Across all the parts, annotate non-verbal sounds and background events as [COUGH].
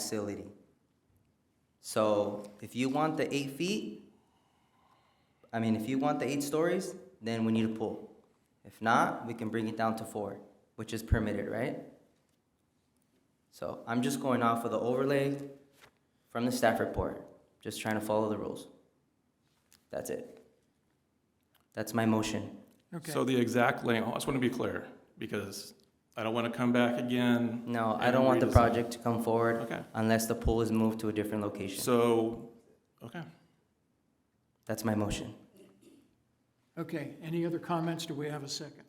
facility. So if you want the eight feet, I mean, if you want the eight stories, then we need a pool. If not, we can bring it down to four, which is permitted, right? So I'm just going off of the overlay from the staff report, just trying to follow the rules. That's it. That's my motion. Okay, So the exact layout, I just want to be clear, because I don't want to come back again. No, I and don't want the redesign. project to come forward Okay, unless the pool is moved to a different location. so, okay. That's my motion. okay. Any other comments? Do we have a second?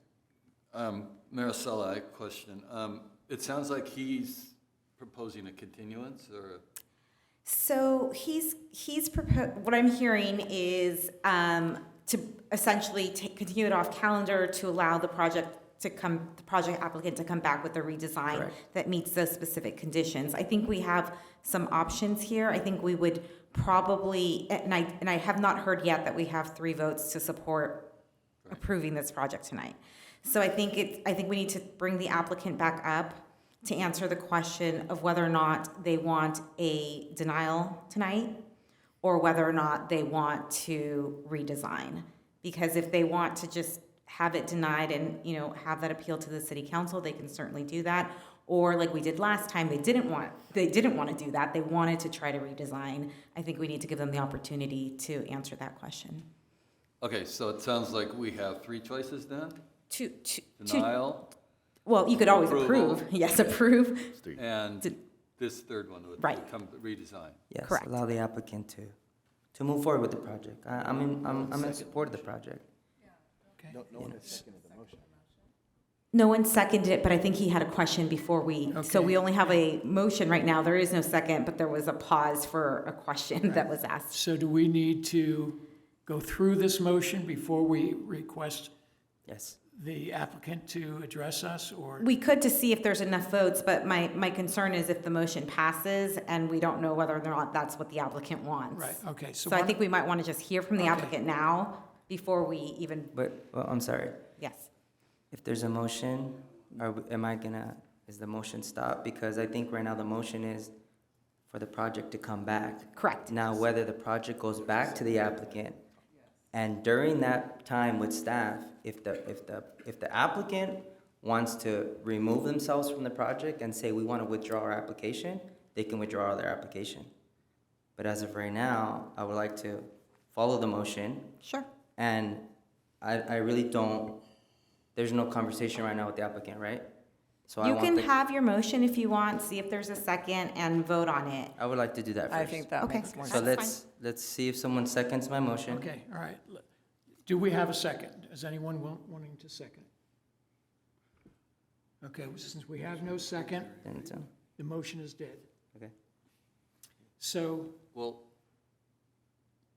Um, Maricela, I have a question. Um, it sounds like he's proposing a continuance or, So he's he's propo- what I'm hearing is um, to essentially ta- continue it off calendar to allow the project to come the project applicant to come back with a redesign Correct. that meets those specific conditions. I think we have some options here. I think we would probably and I and I have not heard yet that we have three votes to support approving this project tonight. So I think it, I think we need to bring the applicant back up to answer the question of whether or not they want a denial tonight or whether or not they want to redesign. Because if they want to just have it denied and, you know, have that appeal to the city council, they can certainly do that. Or like we did last time, they didn't want, they didn't want to do that. They wanted to try to redesign. I think we need to give them the opportunity to answer that question. okay, so it sounds like we have three choices then? To, to, to Denial Well, you could always Approval. approve. Yes, approve. and Did- this third one would Right. come redesign. Yes, Correct. allow the applicant to, to move forward with the project. I, I'm in, I'm, I'm in support of the project. Okay. No one seconded it, but I think he had a question before we, so we only have a motion right now. There is no second, but there was a pause for a question that was asked. So do we need to go through this motion before we request Yes. the applicant to address us, or? We could to see if there's enough votes, but my, my concern is if the motion passes and we don't know whether or not that's what the applicant wants. Right, okay, so So I why- think we might want to just hear from the Okay. applicant now before we even, But, well, I'm sorry. yes. If there's a motion, are, we- am I gonna, is the motion stopped? Because I think right now the motion is for the project to come back. Correct. Now, whether the project goes back to the applicant, and during that time with staff, if the, if the, if the applicant wants to remove themselves from the project and say, we wanna withdraw our application, they can withdraw their application. But as of right now, I would like to follow the motion, Sure. and I, I really don't, there's no conversation right now with the applicant, right? So I You want can the- have your motion if you want, see if there's a second and vote on it. I would like to do that first. I think that Okay. makes more So That's sense. let's, fine. let's see if someone seconds my motion. Okay, all right. L- Do we have a second? Is anyone wa- wanting to second? Okay, well, since we have no second, Then it's, uh, the motion is dead. Okay. So, Well,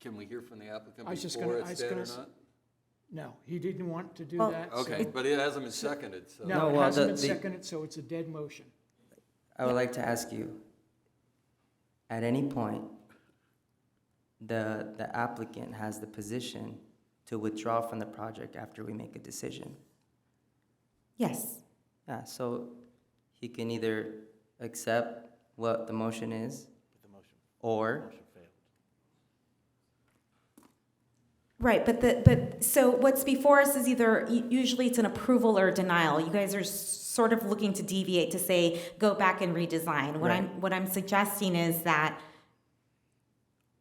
can we hear from the applicant I was just before gonna- I it's was dead gonna or s- not? no, he didn't want to do Well- that. so- Okay, but it hasn't been seconded, so. No, No, it well, hasn't the- been the- seconded, so it's a dead motion. I would like to ask you, at any point, the, the applicant has the position to withdraw from the project after we make a decision. Yes. Yeah, so he can either accept what the motion is. Or, Right, but the, but, so what's before us is either, u- usually it's an approval or a denial. You guys are s- sort of looking to deviate to say, go back and redesign. What I'm, what I'm suggesting is that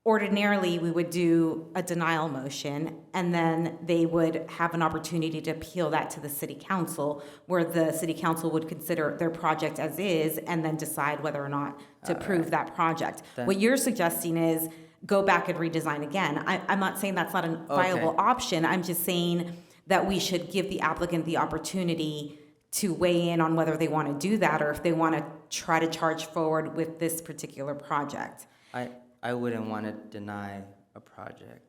ordinarily, we would do a denial motion, and then they would have an opportunity to appeal that to the city council, where the city council would consider their project as is, and then decide whether or not to approve that project. What you're suggesting is go back and redesign again. I, I'm not saying that's not a viable option, I'm just saying that we should give the applicant the opportunity to weigh in on whether they want to do that, or if they want to try to charge forward with this particular project. I, I wouldn't want to deny a project.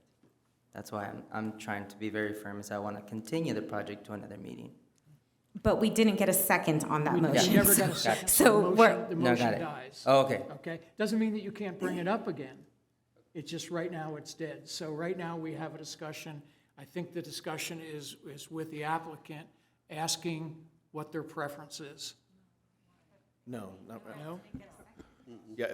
That's why I'm, I'm trying to be very firm, is I want to continue the project to another meeting. But we didn't get a second on that We motion. never [LAUGHS] got a so- second, So so the we're, motion, the No, motion got it. dies. Oh, Okay, Okay, doesn't mean that you can't bring it up again. It's just right now it's dead. So right now we have a discussion. I think the discussion is, is with the applicant, asking what their preference is. No, not, No?